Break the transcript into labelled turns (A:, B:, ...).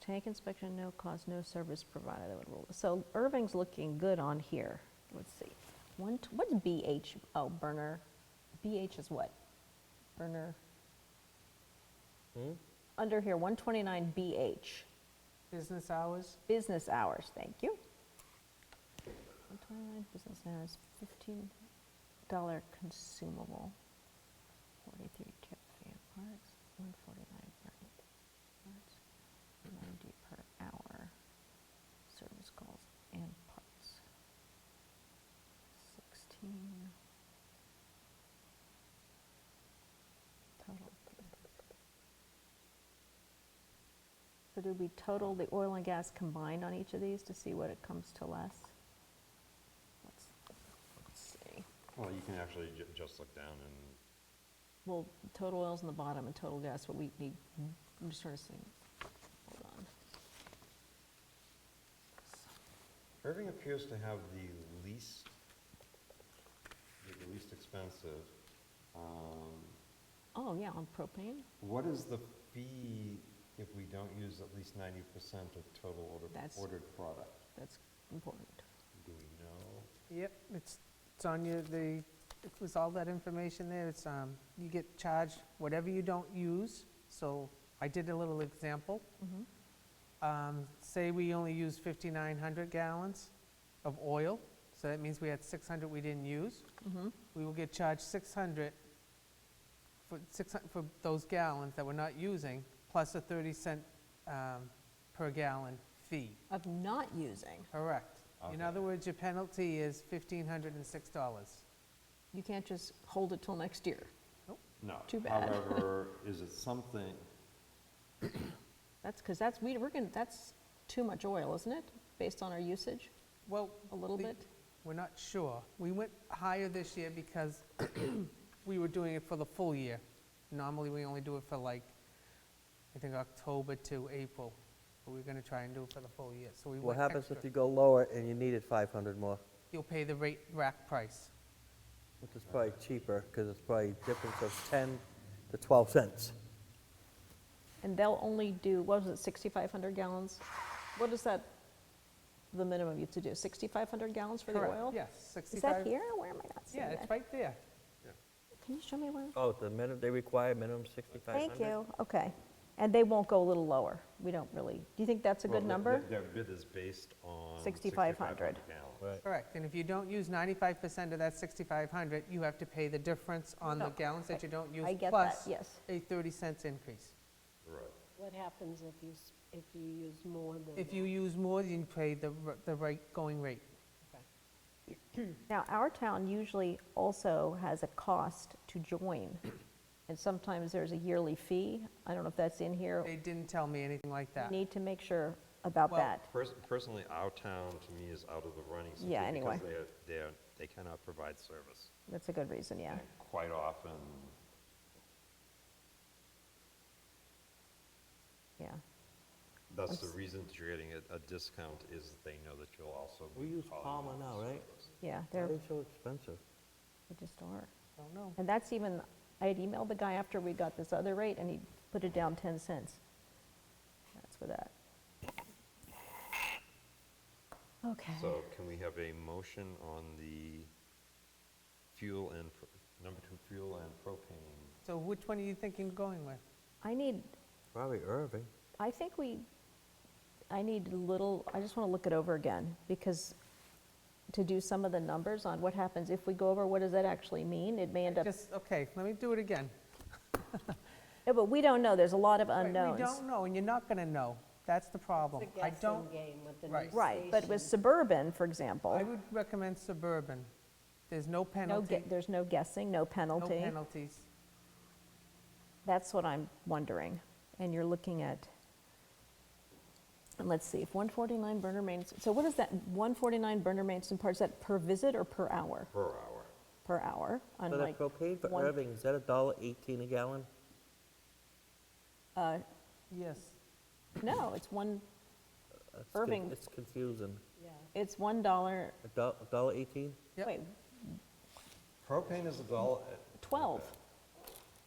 A: Tank inspection, no cost, no service provided, that would rule. So Irving's looking good on here. Let's see. One, t- what's BH? Oh, burner. BH is what? Burner. Under here, 129 BH,
B: Business hours?
A: business hours, thank you. 129 business hours, $15 consumable, 43 tip for your parts, 149 per parts, 90 per hour, service calls and parts. 16. Total. So do we total the oil and gas combined on each of these to see what it comes to less? Let's let's see.
C: Well, you can actually ju- just look down and
A: Well, total oil's in the bottom and total gas, what we need, I'm just trying to see. Hold on.
C: Irving appears to have the least, the least expensive. Um,
A: Oh, yeah, on propane,
C: What is the fee if we don't use at least ninety percent of total order-
A: That's-
C: ordered product?
A: that's important.
C: Do we know?
B: Yep, it's, it's on your, the, it was all that information there, it's, um, you get charged whatever you don't use, so I did a little example. Um, Say we only use 5,900 gallons of oil, so that means we had 600 we didn't use.
A: Mm-hmm.
B: We will get charged 600 for, 600 for those gallons that we're not using, plus a 30 cent um, per gallon fee.
A: Of not using,
B: Correct. In other words, your penalty is $1,506.
A: you can't just hold it till next year.
C: No.
A: Too bad.
C: However, is it something,
A: That's, because that's, we, we're going, to that's too much oil, isn't it, based on our usage?
B: Well.
A: A little
B: the-
A: bit?
B: We're not sure. We went higher this year because we were doing it for the full year. Normally, we only do it for like, I think, October to April. But we're going to try and do it for the full year, so we
D: What
B: went
D: happens
B: extra.
D: if you go lower and you needed 500 more?
B: You'll pay the rate, rack price.
D: Which is probably
A: Uh-huh.
D: cheaper, because it's probably a difference of 10 to 12 cents.
A: And they'll only do, what was it, 6,500 gallons? What is that, the minimum you have to do, 6,500 gallons for the
B: Correct,
A: oil?
B: Yes,
A: Is
B: 65.
A: that here, where am I not seeing
B: Yeah, it's
A: that?
B: right there.
A: Can you show me where?
D: Oh, the minimum, they require minimum 6,500?
A: Thank you, okay. And they won't go a little lower? We don't really, do you think that's a
C: well,
A: good
C: their-
A: number?
C: Their bid is based on
A: 6,500.
C: 6,500 gallons.
D: Right.
B: Correct. And if you don't use 95% of that 6,500, you have to pay the difference on the
A: No,
B: gallons
A: Oh, I-
B: that you don't use.
A: I get that,
B: plus
A: yes.
B: a 30 cents increase.
C: Right.
E: What happens if you, s- if you use more than?
B: If you use more, then you pay the, r- the right going rate.
A: Now, our town usually also has a cost to join, and sometimes there's a yearly fee. I don't know if that's in here.
B: They didn't tell me anything like that.
A: Need to make sure about
B: Well-
A: that.
C: Pers- Personally, our town, to me, is out of the running simply
A: Yeah, anyway.
C: because they're, they're, they cannot provide service.
A: That's a good reason, yeah.
C: And Quite often,
A: Yeah,
C: that's
A: I'm
C: the
A: s-
C: reason that you're getting a, a discount is that they know that you'll also be.
D: We use
C: calling
D: Palmer
C: on
D: now,
C: the
D: right?
C: service.
A: yeah,
D: Why
A: they're,
D: are they so expensive?
A: they just are.
B: I don't know.
A: And that's even, I had emailed the guy after we got this other rate, and he put it down 10 cents. That's for that. Okay.
C: So can we have a motion on the fuel and, pro- number two, fuel and propane?
B: So which one are you thinking of going with?
A: I need,
D: Probably Irving.
A: I think we, I need a little, I just want to look it over again, because to do some of the numbers on what happens if we go over, what does that actually mean? It may end up,
B: Just, okay, let me do it again.
A: Yeah, but we don't know, there's a lot of
B: Wait,
A: unknowns.
B: We don't know, and you're not going to know. That's the problem.
E: Uh, It's a
B: I
E: guessing
B: don't,
E: game with the new
B: Right.
A: Right, but with
E: station.
A: suburban, for
B: I
A: example,
B: would recommend Suburban. There's no
A: no,
B: penalty,
A: gue- there's no guessing, no
B: no
A: penalty.
B: penalties.
A: That's what I'm wondering. And you're looking at, and let's see, if 149 burner mains, so what is that, 149 burner mains and parts, is that per visit or per hour?
C: Per hour.
A: Per hour,
D: But
A: unlike.
D: that propane for
A: one-
D: Irving, is that a dollar 18 a gallon?
A: uh,
B: Yes.
A: No, it's one,
D: That's con-
A: Irving-
D: It's confusing.
E: Yeah.
A: it's one dollar,
D: A dollar 18?
B: Yep.
A: wait,
C: Propane is a dollar,
A: 12.